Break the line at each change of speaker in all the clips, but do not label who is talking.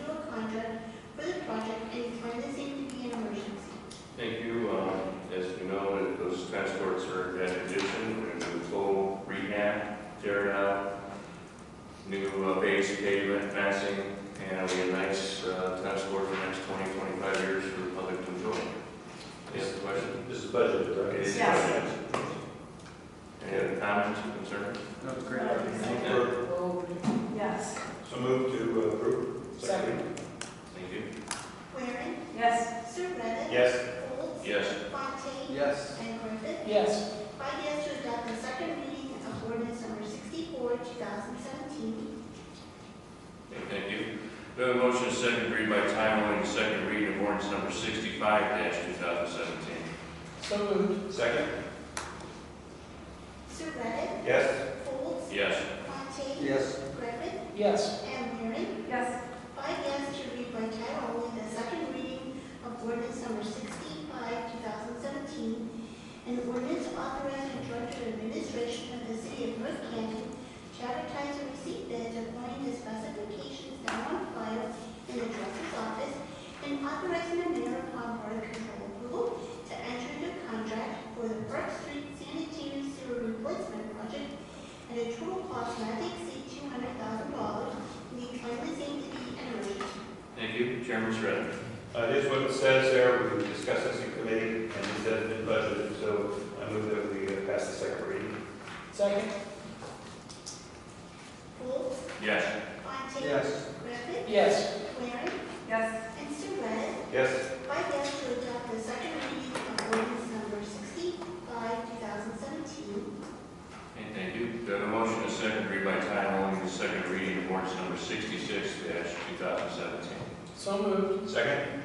um, uh, it'll be a nice, uh, tennis court for the next 20, 25 years for the public to enjoy. Any other questions?
This is budget,
It
right?
is
Yes.
questions. Any other comments or concerns?
No, it's great.
Yes.
So move to uh, approve. Second.
Thank you.
Waring,
Yes.
Surratt,
Yes.
Golds,
Yes.
Fontaine,
Yes.
and Griffin.
Yes.
By yes to adopt the second reading of ordinance number sixty-four, two thousand seventeen.
Okay, Thank you. We have a motion, second read by title only, and second reading of ordinance number 65-2017.
So moved.
Second.
Surratt,
Yes.
Golds,
Yes.
Fontaine,
Yes.
Griffin,
Yes.
and Waring.
Yes.
By yes to read by title only the second reading of ordinance number sixty-five, two thousand seventeen, an ordinance authorizing the director of administration of the city of North Canton to advertise and receive bids according to specifications now on file in the director's office, and authorizing the mayor upon board control approval to enter into contract for the Park Street sanitary sewer replacement project at a total cost not to exceed two hundred thousand dollars, and declaring the same to be an emergency.
Thank you. Chairman Shred.
Uh, this is what it says there, we discussed this in committee, and it says in budget, so I move that we uh, pass the second reading.
Second.
Folds,
Yes.
Fontaine.
Yes.
Griffith.
Yes.
Waring.
Yes.
And Surratt.
Yes.
By yes to adopt the second reading of ordinance number sixty-five, two thousand seventeen.
Okay, thank you. Do I have a motion, to second read by title only, and second reading of ordinance number 66-2017?
So moved.
Second.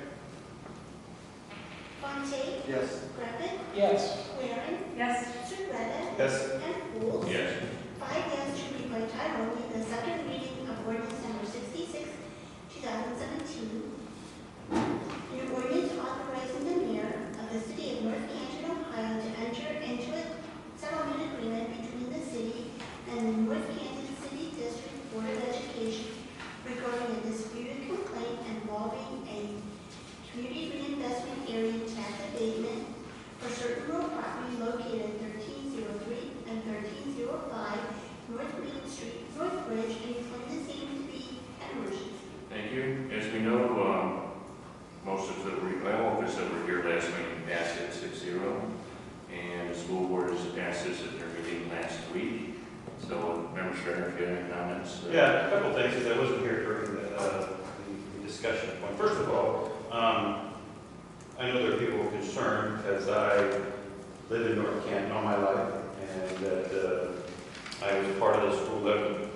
Fontaine.
Yes.
Griffith.
Yes.
Waring.
Yes.
Surratt.
Yes.
And Folds.
Yes.
Five yes to read by title only the second reading of ordinance number sixty-six, two thousand seventeen. An ordinance authorizing the mayor of the city of North Canton, Ohio to enter into a settlement agreement between the city and the North Canton City District Board of Education regarding a disputed complaint involving a community reinvestment area tax abatement for certain real property located thirteen zero three and thirteen zero five North Main Street, North Bridge, and declaring the same to be an emergency.
Thank you. As we know, um, most of the, re- well, all of us that were here last meeting passed it six zero. And the school board has passed this at their meeting last week. So, Member Shredder, if you have any comments? uh,
Yeah, a couple things, because I wasn't here during the, uh, the discussion. Well, First of all, um, I know there are people concerned, as I live in North Canton all my life, and that, uh, I was part of the school living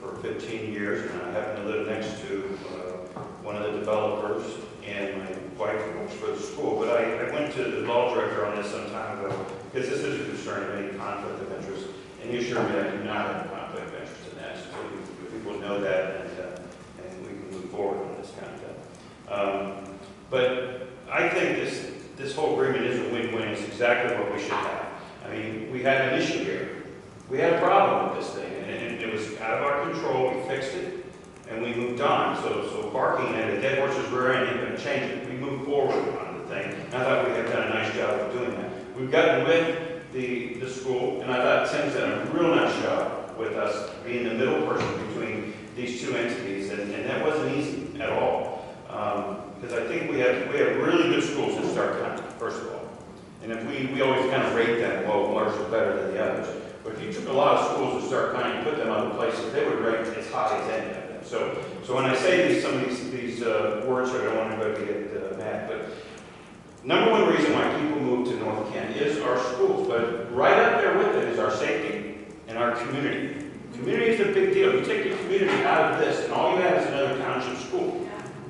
for fifteen years, and I happen to live next to, uh, one of the developers, and my wife works for the school, but I, I went to the law director on this some time ago, because this is a concern of any conflict of interest, and you assure me I do not have a conflict of interest in that, so we- people know that, and, uh, and we can move forward on this kind of thing. Um, But I think this, this whole agreement is a win-win, it's exactly what we should have. I mean, we had an issue here, we had a problem with this thing, and- and it was out of our control, we fixed it, and we moved on, so, so barking at a dead horse's rear end ain't gonna change it, we moved forward on the thing, and I thought we had done a nice job of doing that. We've gotten with the, the school, and I thought Tim's done a real nice job with us being the middle person between these two entities, and, and that wasn't easy at all. Because I think we have, we have really good schools in Stark County, first of all. And if we, we always kind of rate them, well, ours are better than the others. But if you took a lot of schools in Stark County and put them other places, they would rate as high as any of them. So, so when I say these, some of these, these uh, words, here, I don't want anybody to get uh, mad, but Number one reason why people move to North Canton is our schools, but right up there with it is our safety and our community. Community is a big deal. You take the community out of this, and all you have is another township school.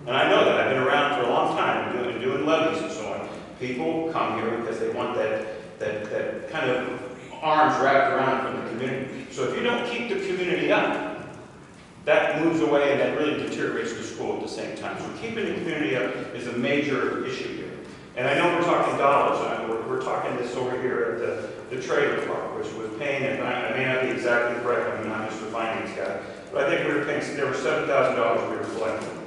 And I know that, I've been around for a long time, and doing, doing levies and so on. People come here because they want that, that, that kind of arms wrapped around from the community. So if you don't keep the community up, that moves away and that really deteriorates the school at the same time. So keeping the community up is a major issue here. And I know we're talking dollars, and we're, we're talking this over here at the, the trailer park, which was paying, and I I may not be exactly correct, I'm not just a finance guy, but I think we were paying, there were seven thousand dollars we were collecting.